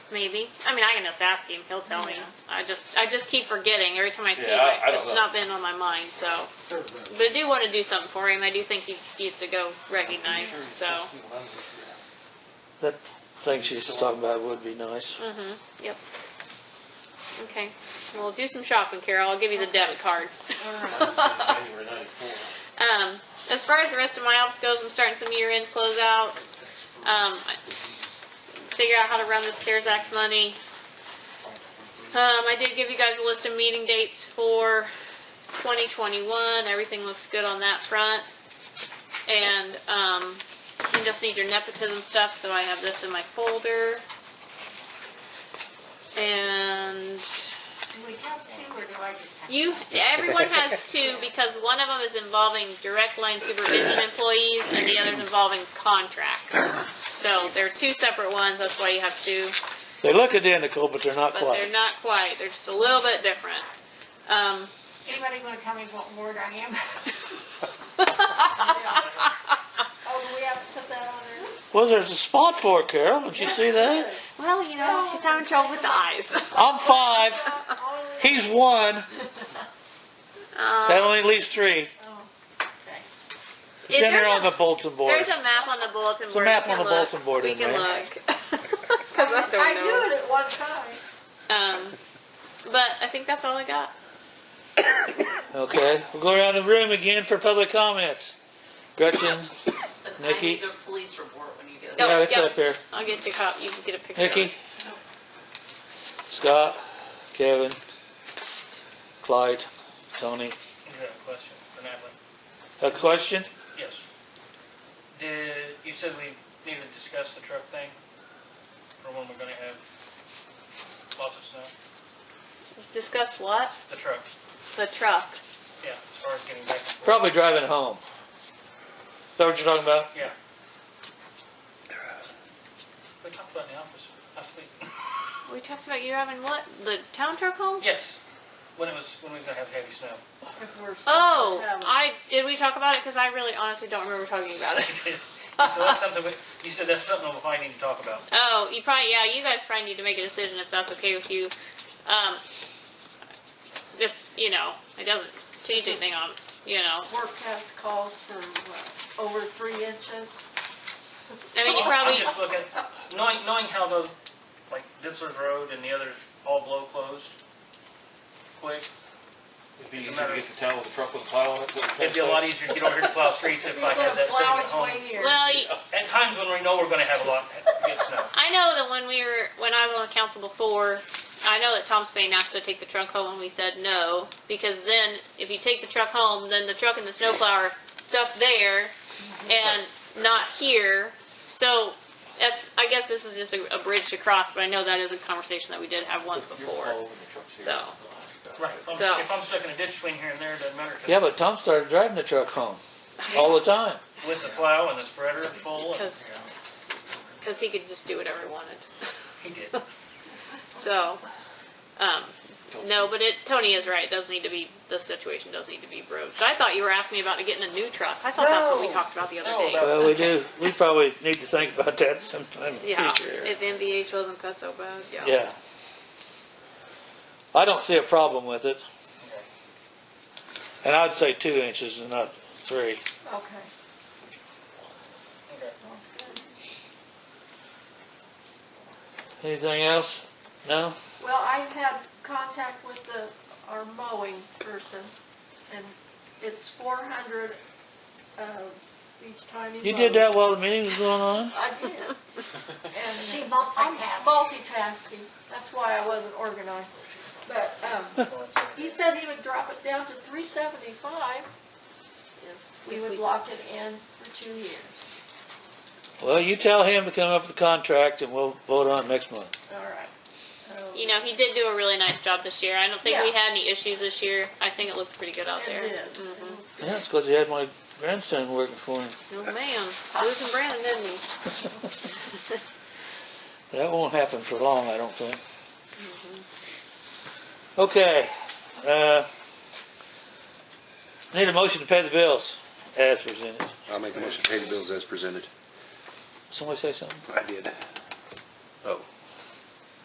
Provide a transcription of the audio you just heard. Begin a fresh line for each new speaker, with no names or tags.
maybe. I mean, I can just ask him. He'll tell me.
Yeah.
I just, I just keep forgetting every time I see
Yeah,
him.
I- I don't
it's
know.
not been on my mind, so. But I do want to do something for him. I do think he needs to go recognized. So,
That thing she's talking about would be nice.
yep. Okay. Well, do some shopping, Carol. I'll give you the debit card.
January ninety-four.
Um, as far as the rest of my office goes, I'm starting some year-end closeouts. Um, I- figure out how to run this CARES Act money. Um, I did give you guys a list of meeting dates for 2021. Everything looks good on that front. And, um, you just need your nepotism stuff, so I have this in my folder. And
Do we have two, or do I just have?
you, everyone has two because one of them is involving direct line supervision employees and the other's involving contracts. So there are two separate ones, that's why you have two,
They look identical, but they're not
but they're
quite.
not quite, they're just a little bit different. Um,
Anybody gonna tell me what ward I am? Oh, do we have to put that on there?
Well, there's a spot for it, Carol. Did you see that?
Well, you know, she's having trouble with the eyes.
I'm five.
Uh,
He's one. That
Um,
only leaves three.
Oh, okay.
is
Then
there
they're on
a-
the bulletin board.
There's a map on the bulletin
a
board.
map
We
on
can
the
look.
bulletin board
We
in
can
there.
look. 'Cause I
I
don't know.
knew it at one time.
Um, but I think that's all I got.
Okay, we'll go around the room again for public comments. Gretchen,
I need
Nikki,
the police report when you get it.
Yep,
yeah, it's
yep.
up there.
I'll get your cop, you can get a picture of it.
Nikki, Scott, Kevin, Clyde, Tony.
I got a question for Natalie.
A question?
Yes. Did, you said we need to discuss the truck thing for when we're gonna have lots of snow?
Discuss what?
The truck,
The truck.
yeah, as far as getting back and forth.
Probably driving home. Is that what you're talking about?
Yeah. We talked about in the office last week.
We talked about you having what? The town truck home?
Yes, when it was, when we were gonna have heavy snow.
If we're supposed to
Oh,
have-
I did we talk about it? Because I really honestly don't remember talking about it.
So that's something, we- you said that's something we might need to talk about.
Oh, you probably yeah. You guys probably need to make a decision if that's okay with you. Um, if you know it doesn't change anything on you know.
Work test calls for what, over three inches.
I mean you
I'm-
probably
I'm just looking, knowing, knowing how those, like Ditzler's Road and the others all blow closed quick,
It'd be easier to get to town with a truck with a plow on it. what
it'd be a lot easier to get over here to plow streets if I had that
Plow
sitting at
its
home.
way here.
well. You,
At times when we know we're gonna have a lot, get snow.
I know that when we were, when I was on the council before, I know that Tom Spain asked to take the truck home and we said no, because then if you take the truck home, then the truck and the snowplower are stuck there and not here. So that's, I guess this is just a, a bridge to cross, but I know that is a conversation that we did have once
You're all
before.
over the trucks here.
So,
Right, if
So-
I'm- if I'm stuck in a ditch between here and there, it doesn't matter, 'cause
Yeah, but Tom started driving the truck home all the time.
with the plow and the spreader full, and,
because, because he could just do whatever he wanted.
he did.
So, um, no, but it, Tony is right. It does need to be, the situation does need to be broached. I thought you were asking me about getting a new truck. I thought that's what we
No.
talked about the other
No,
day.
about-
Well, we do, we probably need to think about that sometime in
Yeah,
the future.
if NVH wasn't cut so bad, yeah.
Yeah. I don't see a problem with it. And I'd say two inches and not three.
Okay.
Okay.
Anything else? No?
Well, I had contact with the, our mowing person, and it's four hundred, uh, each time you mow.
You did that while the meeting was going on?
I did. And
She
I'm
multitasking.
multitasking, that's why I wasn't organized. But, um, he said he would drop it down to three seventy-five if we would lock it in for two years.
Well, you tell him to come up with the contract and we'll vote on it next month.
All right. So-
You know, he did do a really nice job this year. I don't think we
Yeah.
had any issues this year. I think it looked pretty good out
It
there.
did.
Mhm.
Yeah, it's because he had my grandson working for him.
No, ma'am. Losing Brandon, didn't he?
That won't happen for long, I don't think. Okay, uh, need a motion to pay the bills as presented.
I'll make a motion to pay the bills as presented.
Somebody say something?
I did.